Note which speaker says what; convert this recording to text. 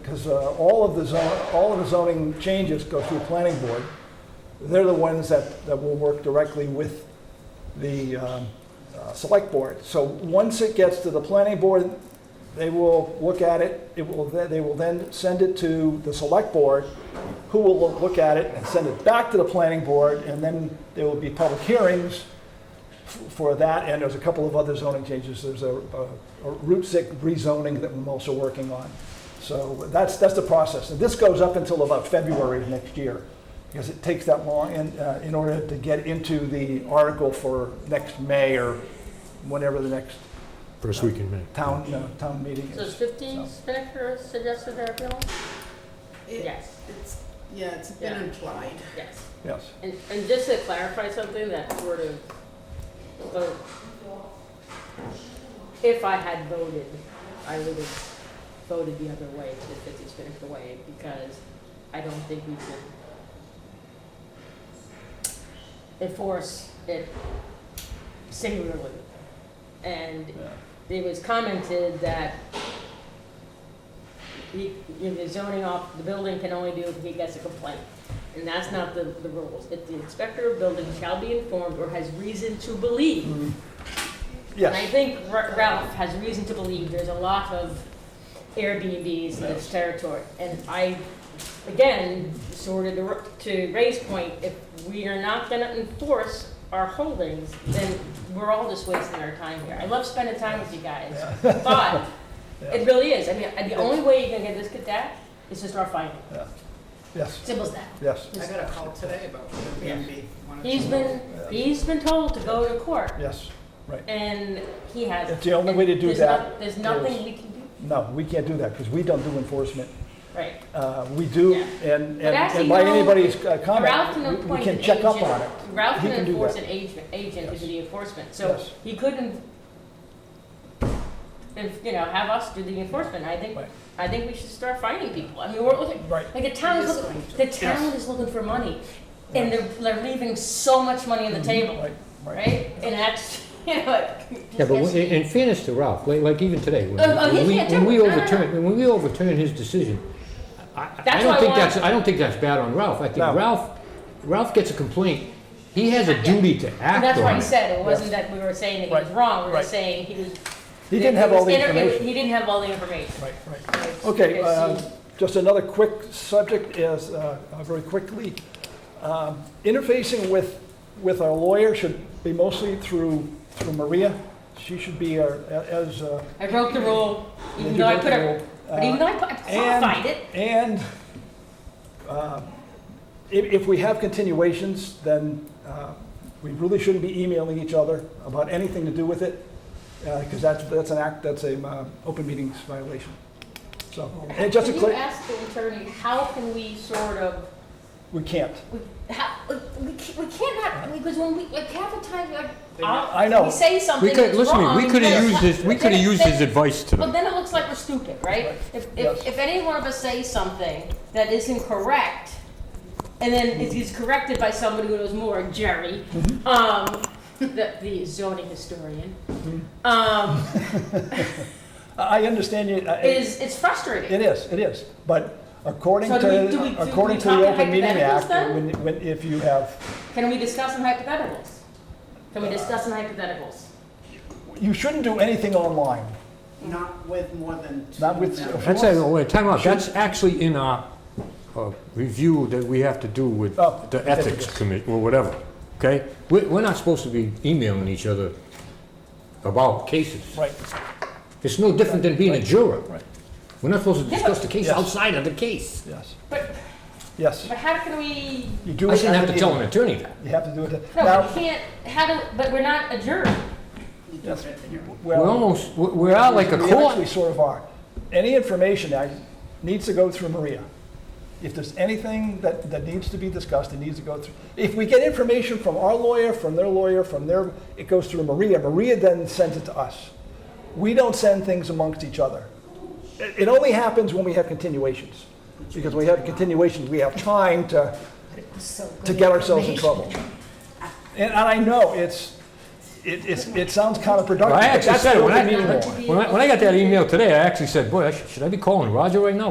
Speaker 1: because uh, all of the zone, all of the zoning changes go through planning board. They're the ones that, that will work directly with the um, uh, select board. So once it gets to the planning board, they will look at it, it will, then- they will then send it to the select board, who will loo- look at it and send it back to the planning board, and then there will be public hearings f- for that, and there's a couple of other zoning changes. There's a, a- a Route 6 rezoning that I'm also working on. So that's, that's the process. And this goes up until about February of next year, because it takes that long in, uh, in order to get into the article for next May or whenever the next
Speaker 2: First week in May.
Speaker 1: town, uh, town meeting
Speaker 3: So is
Speaker 1: is.
Speaker 3: fifteen Spinnaker suggested there, Bill?
Speaker 4: It-
Speaker 3: Yes,
Speaker 4: It's, yeah, it's been
Speaker 3: Yeah.
Speaker 4: implied.
Speaker 3: yes.
Speaker 1: Yes.
Speaker 3: And, and just to clarify something that sort of, vote, if I had voted, I would have voted the other way, to the fifty Spinnaker way, because I don't think we should enforce it singularly. And
Speaker 1: Yeah.
Speaker 3: it was commented that he, you know, the zoning off, the building can only do if he gets a complaint. And that's not the, the rules. If the inspector of building shall be informed or has reason to believe.
Speaker 1: Mm.
Speaker 3: And I
Speaker 1: Yes,
Speaker 3: think Ra- Ralph has reason to believe there's a lot of Airbnbs in this territory. And I, again, sort of to Ra- to Ray's point, if we are not gonna enforce our holdings, then we're all just wasting our time here. I love spending time with you guys, but it really is. I mean, the only way you can get this, get that, is to start fighting.
Speaker 1: yes,
Speaker 3: Simple as that.
Speaker 1: yes,
Speaker 4: I got a call today about Airbnb. wanted to
Speaker 3: He's been, he's been told to go to court,
Speaker 1: yes.
Speaker 3: and he hasn't.
Speaker 1: It's the only way to do
Speaker 3: There's
Speaker 1: that
Speaker 3: not- There's nothing we can do,
Speaker 1: No, we can't do that because we don't do enforcement.
Speaker 3: right.
Speaker 1: Uh, We do,
Speaker 3: Yeah.
Speaker 1: and, and-
Speaker 3: actually,
Speaker 1: and by
Speaker 3: no,
Speaker 1: anybody's uh,
Speaker 3: Ralph can
Speaker 1: comment, we- we
Speaker 3: appoint
Speaker 1: can
Speaker 3: an
Speaker 1: check up
Speaker 3: agent.
Speaker 1: on it.
Speaker 3: Ralph
Speaker 1: He
Speaker 3: can
Speaker 1: can do
Speaker 3: enforce
Speaker 1: that.
Speaker 3: an agent, agent to do the enforcement, so
Speaker 1: Yes.
Speaker 3: he couldn't, if, you know, have us do the enforcement. I think,
Speaker 1: Right.
Speaker 3: I think we should start finding people. I mean, we're looking,
Speaker 1: Right,
Speaker 3: like, the town, is looking- the town is looking for money, and they're, they're leaving so much money on the table,
Speaker 1: Mm-hmm. right, right.
Speaker 3: right? And that's, you know, it.
Speaker 2: Yeah, but in in fairness to Ralph, like, like even today, when
Speaker 3: Oh, oh, he
Speaker 2: when we,
Speaker 3: can't
Speaker 2: when
Speaker 3: do
Speaker 2: we
Speaker 3: it. No, no, no.
Speaker 2: overturn, when we overturn his decision, I, I- I
Speaker 3: That's why I
Speaker 2: don't think
Speaker 3: want-
Speaker 2: that's, I don't think that's bad on Ralph. I think
Speaker 1: No.
Speaker 2: Ralph, Ralph gets a complaint, he has a duty to
Speaker 3: And
Speaker 2: act
Speaker 3: that's why
Speaker 2: on
Speaker 3: he
Speaker 2: it.
Speaker 3: said, it wasn't that we were saying that he was
Speaker 1: Right,
Speaker 3: wrong, we were
Speaker 1: right.
Speaker 3: saying he was.
Speaker 1: He
Speaker 3: that
Speaker 1: didn't
Speaker 3: it
Speaker 1: have all
Speaker 3: was
Speaker 1: the
Speaker 3: inter- it was-
Speaker 1: information.
Speaker 3: He didn't have all the information.
Speaker 1: Right, right. Okay, uh, just another quick subject is, uh, uh, very quickly, um, interfacing with, with our lawyer should be mostly through, through Maria. She should be our, a- as. uh,
Speaker 3: I broke the rule, even
Speaker 1: you
Speaker 3: though I
Speaker 1: wrote
Speaker 3: put
Speaker 1: the
Speaker 3: a,
Speaker 1: rule,
Speaker 3: but
Speaker 1: uh,
Speaker 3: even though I put, I qualified it.
Speaker 1: And uh, if, if we have continuations, then uh, we really shouldn't be emailing each other about anything to do with it, because that's, that's an act, that's a uh, open meetings violation. So, and just to
Speaker 3: Can you
Speaker 1: clear,
Speaker 3: ask the attorney, how can we sort of,
Speaker 1: we can't.
Speaker 3: we, how, we can't, we can't not, because when we, like, half the time, like,
Speaker 4: They-
Speaker 3: I'll-
Speaker 1: I know.
Speaker 3: we say
Speaker 2: We
Speaker 3: something
Speaker 2: could,
Speaker 3: that's
Speaker 2: listen to
Speaker 3: wrong.
Speaker 2: me, we could have
Speaker 3: because-
Speaker 2: used his, we could have
Speaker 3: then-
Speaker 2: used his
Speaker 3: then-
Speaker 2: advice
Speaker 3: Well,
Speaker 2: today.
Speaker 3: then it looks like we're stupid, right? If,
Speaker 1: Yes.
Speaker 3: if, if any one of us says something that is incorrect, and then it is corrected by somebody who knows more, Jerry,
Speaker 1: Mm-hmm.
Speaker 3: um, the, the zoning historian,
Speaker 1: Mm-hmm.
Speaker 3: um,
Speaker 1: I I understand you, I-
Speaker 3: is, it's frustrating.
Speaker 1: it is, it is, but according
Speaker 3: So do we- do we- do
Speaker 1: to,
Speaker 3: we
Speaker 1: according to
Speaker 3: talk
Speaker 1: the
Speaker 3: in
Speaker 1: Open Meeting
Speaker 3: hypotheticals
Speaker 1: Act,
Speaker 3: then?
Speaker 1: when, when, if you have,
Speaker 3: Can we discuss in hypotheticals? Can we
Speaker 1: Uh,
Speaker 3: discuss in hypotheticals?
Speaker 1: you shouldn't do anything online,
Speaker 4: Not with more than two
Speaker 1: Not with-
Speaker 4: members.
Speaker 2: That's, a- oh, wait, time out, that's actually in our uh, review that we have to do with
Speaker 1: Oh,
Speaker 2: the
Speaker 1: okay,
Speaker 2: ethics
Speaker 1: yes.
Speaker 2: committee, or whatever, okay? We're, we're not supposed to be emailing each other about cases.
Speaker 1: right?
Speaker 2: It's no different than being a juror.
Speaker 1: Right.
Speaker 2: We're not supposed to
Speaker 3: Yeah,
Speaker 2: discuss the case
Speaker 1: yes.
Speaker 2: outside of the case.
Speaker 1: Yes,
Speaker 3: But,
Speaker 1: yes.
Speaker 3: but how can we,
Speaker 1: You do
Speaker 2: I
Speaker 1: it
Speaker 2: shouldn't
Speaker 1: at
Speaker 2: have
Speaker 1: the
Speaker 2: to tell an
Speaker 1: meeting.
Speaker 2: attorney that.
Speaker 1: You have to do it. at-
Speaker 3: no,
Speaker 1: Now,
Speaker 3: we can't, how do, but we're not a jury.
Speaker 4: You do
Speaker 1: Yes.
Speaker 4: it in your-
Speaker 2: We're
Speaker 1: well,
Speaker 2: almost, we're- we're out like a
Speaker 1: we actually
Speaker 2: court.
Speaker 1: sort of are. Any information that needs to go through Maria. If there's anything that, that needs to be discussed, it needs to go through. If we get information from our lawyer, from their lawyer, from their, it goes through Maria. Maria then sends it to us. We don't send things amongst each other. It, it only happens when we have continuations. Because when we have continuations, we have time to, to get ourselves in trouble. And, and I know it's, it, it's, it sounds counterproductive.
Speaker 2: I
Speaker 1: but
Speaker 2: actually
Speaker 1: that's
Speaker 2: said,
Speaker 1: the
Speaker 2: it when
Speaker 1: open meeting law.
Speaker 2: I, when I, when I got that email today, I actually said, boy, I should- should I be calling Roger right now?